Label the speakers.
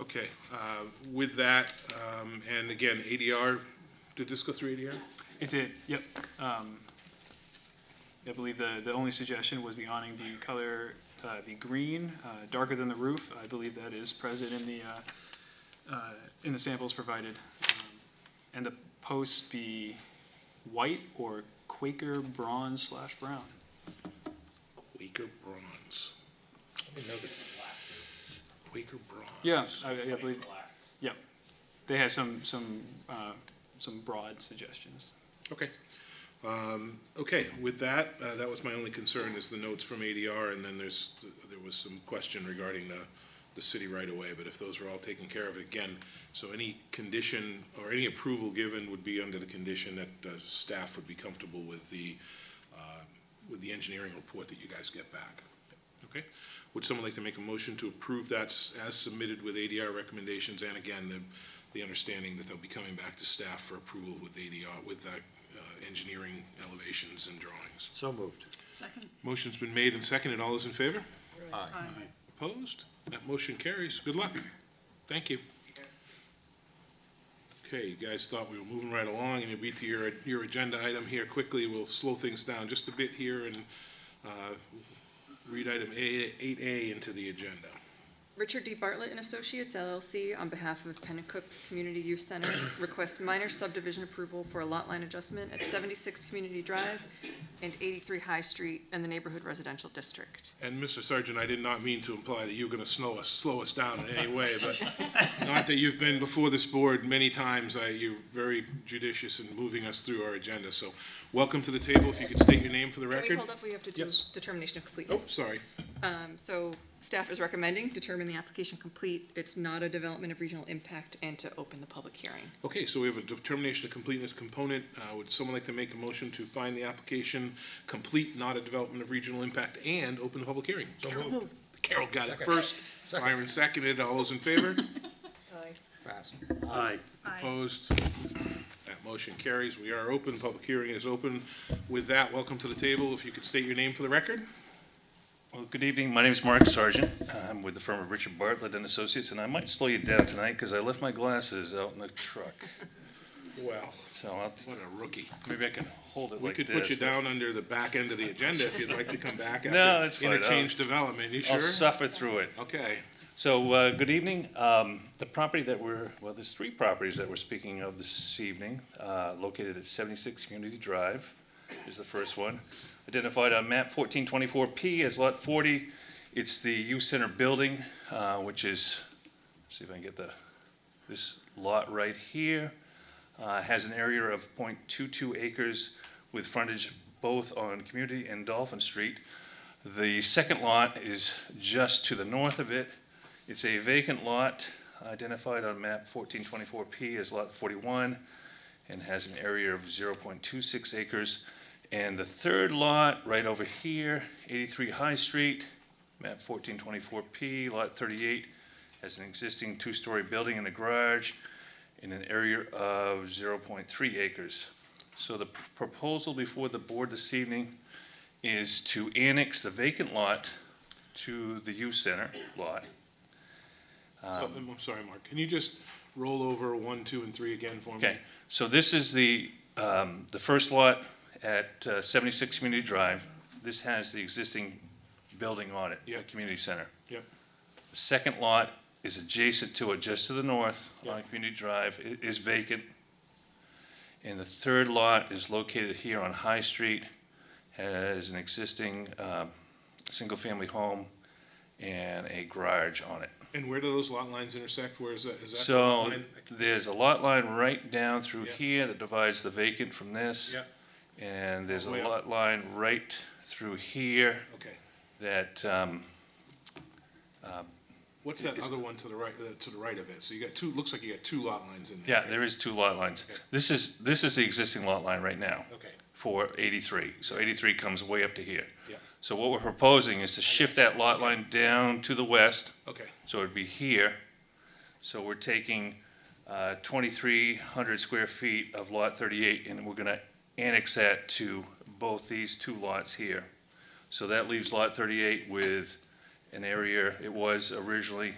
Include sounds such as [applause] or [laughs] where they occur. Speaker 1: Okay, uh, with that, um, and again, ADR, did this go through ADR?
Speaker 2: It did, yep. Um, I believe the, the only suggestion was the awning be color, uh, be green, uh, darker than the roof. I believe that is present in the, uh, uh, in the samples provided. Um, And the posts be white or Quaker bronze slash brown.
Speaker 1: Quaker bronze. Quaker bronze.
Speaker 2: Yeah, I, I believe, yep. They had some, some, uh, some broad suggestions.
Speaker 1: Okay. Um, Okay, with that, uh, that was my only concern, is the notes from ADR, and then there's, there was some question regarding the, the city right away. but if those are all taken care of, again, so any condition or any approval given would be under the condition that uh, staff would be comfortable with the, uh, with the engineering report that you guys get back. Okay? Would someone like to make a motion to approve that s- as submitted with ADR recommendations, and again, the, the understanding that they'll be coming back to staff for approval with ADR, with uh, uh, engineering elevations and drawings?
Speaker 3: So moved.
Speaker 4: Second.
Speaker 1: Motion's been made and seconded. All those in favor?
Speaker 3: Aye.
Speaker 1: Opposed? That motion carries. Good luck. Thank you. Okay, you guys thought we were moving right along, and you'll be to your, your agenda item here quickly. We'll slow things down just a bit here and uh, read item A- 8A into the agenda.
Speaker 5: Richard D. Bartlett and Associates LLC, on behalf of Pennacook Community Youth Center,
Speaker 1: [coughs]
Speaker 5: requests minor subdivision approval for a lot line adjustment at 76 Community Drive and 83 High Street in the Neighborhood Residential District.
Speaker 1: And Mr. Sargent, I did not mean to imply that you were going to slow us, slow us down in any way,
Speaker 3: [laughs]
Speaker 1: but not that you've been before this board many times. I- You're very judicious in moving us through our agenda, so welcome to the table. If you could state your name for the
Speaker 5: Can
Speaker 1: record.
Speaker 5: we hold up? We have to do
Speaker 1: Yes.
Speaker 5: determination of
Speaker 1: Oh,
Speaker 5: completeness.
Speaker 1: sorry.
Speaker 5: Um, So staff is recommending determine the application complete. It's not a development of regional impact and to open the public hearing.
Speaker 1: Okay, so we have a determination of completeness component. Uh, Would someone like to make a motion to find the application complete, not a development of regional impact, and open the public hearing? Carol- Carol got it first.
Speaker 3: Second.
Speaker 1: Myron seconded. All those in favor?
Speaker 3: Pass. Aye.
Speaker 1: Opposed? That motion carries. We are open. Public hearing is open. With that, welcome to the table. If you could state your name for the record?
Speaker 6: Well, good evening. My name is Mark Sargent. I'm with the firm of Richard Bartlett and Associates, and I might slow you down tonight because I left my glasses out in the truck.
Speaker 1: Well,
Speaker 6: So I'll,
Speaker 1: what a rookie.
Speaker 6: maybe I can hold it
Speaker 1: We
Speaker 6: like this.
Speaker 1: could put you down under the back end of the agenda if you'd like to come back
Speaker 6: [laughs] No, that's
Speaker 1: after
Speaker 6: fine. I'll-
Speaker 1: interchange development. You
Speaker 6: I'll
Speaker 1: sure?
Speaker 6: suffer through it.
Speaker 1: Okay.
Speaker 6: So, uh, good evening. Um, The property that we're, well, there's three properties that we're speaking of this evening, uh, located at 76 Community Drive is the first one, identified on map 1424P as Lot 40. It's the youth center building, uh, which is, see if I can get the, this lot right here, uh, has an area of .22 acres with frontage both on Community and Dolphin Street. The second lot is just to the north of it. It's a vacant lot identified on map 1424P as Lot 41 and has an area of 0.26 acres. And the third lot, right over here, 83 High Street, map 1424P, Lot 38, has an existing two-story building and a garage in an area of 0.3 acres. So the pr- proposal before the board this evening is to annex the vacant lot to the youth center lot. Um,
Speaker 1: So, I'm I'm sorry, Mark. Can you just roll over one, two, and three again for me?
Speaker 6: Okay, so this is the, um, the first lot at uh, 76 Community Drive. This has the existing building on it.
Speaker 1: Yeah.
Speaker 6: the Community center.
Speaker 1: Yep.
Speaker 6: The second lot is adjacent to it, just to the north
Speaker 1: Yeah.
Speaker 6: on Community Drive, i- is vacant. And the third lot is located here on High Street, has an existing, um, single-family home and a garage on it.
Speaker 1: And where do those lot lines intersect? Where is that? Is that? the
Speaker 6: So
Speaker 1: line? I can-
Speaker 6: there's a lot line right down through
Speaker 1: Yeah.
Speaker 6: here that divides the vacant from this.
Speaker 1: Yeah.
Speaker 6: And there's a
Speaker 1: Way up.
Speaker 6: lot line right through here
Speaker 1: Okay.
Speaker 6: that, um,
Speaker 1: What's that
Speaker 6: Is-
Speaker 1: other one to the right, uh, to the right of it? So you got two, looks like you got two lot lines in there.
Speaker 6: yeah, there is two lot lines.
Speaker 1: Okay.
Speaker 6: This is, this is the existing lot line right now
Speaker 1: Okay,
Speaker 6: for 83. So 83 comes way up to here.
Speaker 1: Yeah.
Speaker 6: So what we're proposing is to shift that lot line down to the west.
Speaker 1: okay.
Speaker 6: So it'd be here. So we're taking uh, 2,300 square feet of Lot 38, and we're going to annex that to both these two lots here. So that leaves Lot 38 with an area, it was originally